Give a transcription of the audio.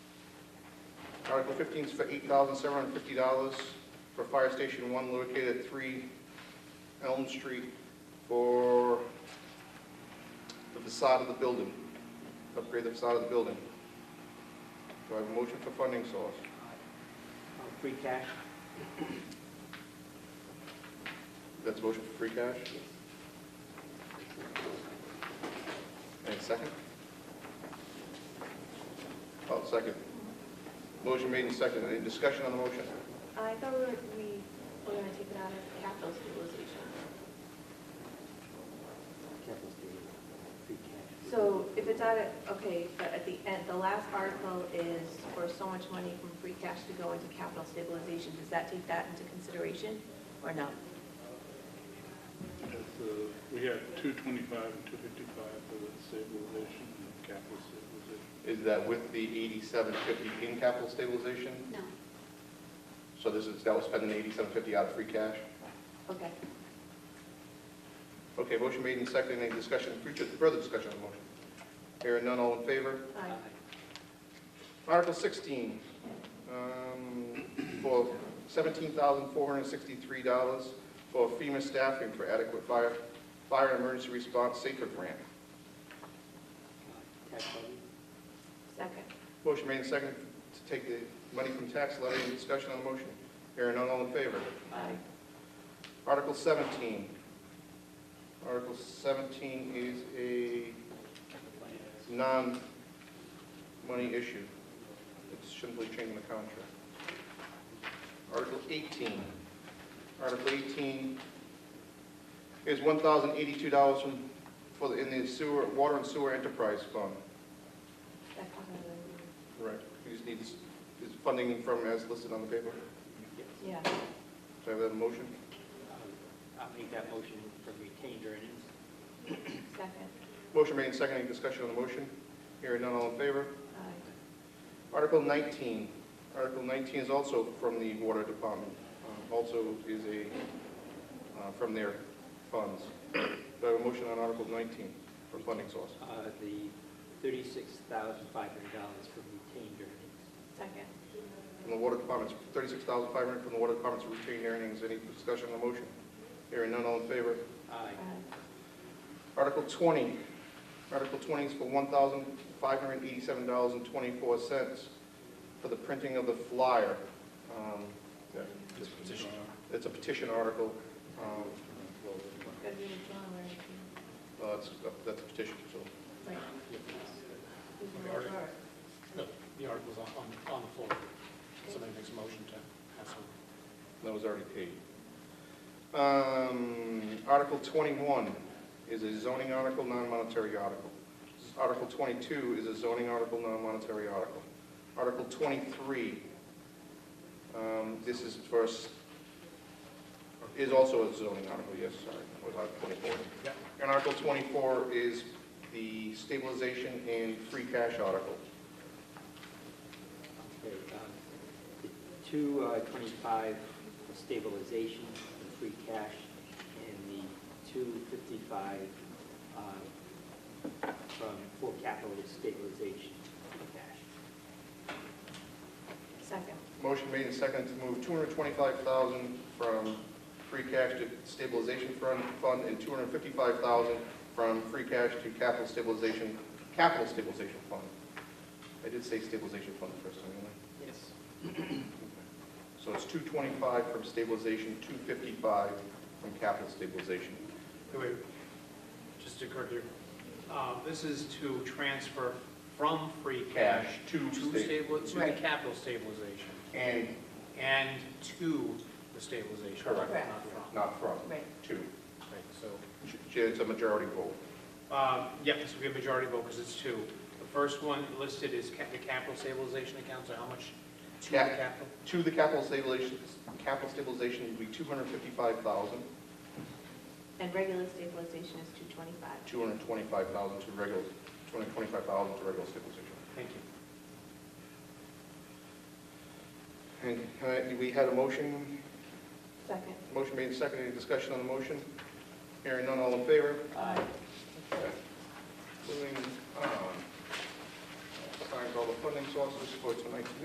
Article 15 is for $8,750 for Fire Station 1 located at 3 Elm Street for the facade of the building, upgrade the facade of the building. Do I have a motion for funding source? Uh, Free cash? That's a motion for free cash? And second? Oh, second. Motion made and second. Any discussion on the motion? I thought we were, we were gonna take it out of capital stabilization. Capital statement, free cash. So if it's out of, okay, but at the end, the last article is for so much money from free cash to go into capital stabilization. Does that take that into consideration or no? Yes, uh, We had 225 and 255 for the stabilization and capital stabilization. Is that with the 8750 in capital stabilization? No. So this is, that was spending 8750 out of free cash? Okay. Okay, motion made and second. Any discussion, future, further discussion on the motion? Hearing none, all in favor? Aye. Article 16, um, for $17,463 for FEMA staffing for adequate fire, fire and emergency response safer grant. Uh, Tax levy? Second. Motion made and seconded to take the money from tax levy. Any discussion on the motion? Hearing none, all in favor? Aye. Article 17. Article 17 is a non-money issue. It's simply changing the contract. Article 18. Article 18 is $1,082 from, for, the- in the sewer, water and sewer enterprise fund. That comes out of Correct. You just need, this- is funding from as listed on the paper. Yes. the- yeah. Do I have a motion? Uh, I'll make that motion for retained earnings. Second. Motion made and seconded. Any discussion on the motion? Hearing none, all in favor? Aye. Article 19, Article 19 is also from the Water Department, um, also is a, uh, from their funds. Do I have a motion on Article 19 for funding source? Uh, The $36,500 for retained earnings. Second. From the Water Department's, 36500 from the Water Department's retained earnings, any discussion on the motion? Hearing none, all in favor? Aye. Aye. Article 20, Article 20 is for $1,587.24 for the printing of the flyer. Um, This petition. It's a petition article, um, Gotta be withdrawn, right? Uh, it's- That's a petition, so. Right. We can Okay, withdraw it. No, the article's on, on- on the floor. Somebody makes a motion to have some. That was already paid. Um, Article 21 is a zoning article, non-monetary article. Article 22 is a zoning article, non-monetary article. Article 23, um, this is first, is also a zoning article, yes, sorry, it was Article 24. Yep. And Article 24 is the stabilization and free cash article. Okay, um, the Two uh, 25 for stabilization and free cash, and the 255 um, from, for capital stabilization and cash. Second. Motion made and seconded to move 225000 from free cash to stabilization fund- fund and 255000 from free cash to capital stabilization, capital stabilization fund. I did say stabilization fund first time, didn't Yes. I? So it's 225 from stabilization, 255 from capital stabilization. Wait, wait, just to correct you, uh, this is to transfer from free cash To to sta- stable, to the Right. capital stabilization And and to the stabilization. Correct. Not from. not from, Right. to. Right, so, It's a majority vote. uh, yep, this will be a majority vote because it's two. The first one listed is ca- the capital stabilization account, so how much to the Cap- capital? To the capital stabilization, capital stabilization would be 255000 And regular stabilization is 225. 225,000 to regular, 225,000 to regular stabilization. Thank you. And uh, we had a motion, Second. motion made and seconded, any discussion on the motion? Hearing none, all in favor? Aye. um, Moving on. Signed all the funding sources for tonight's meeting.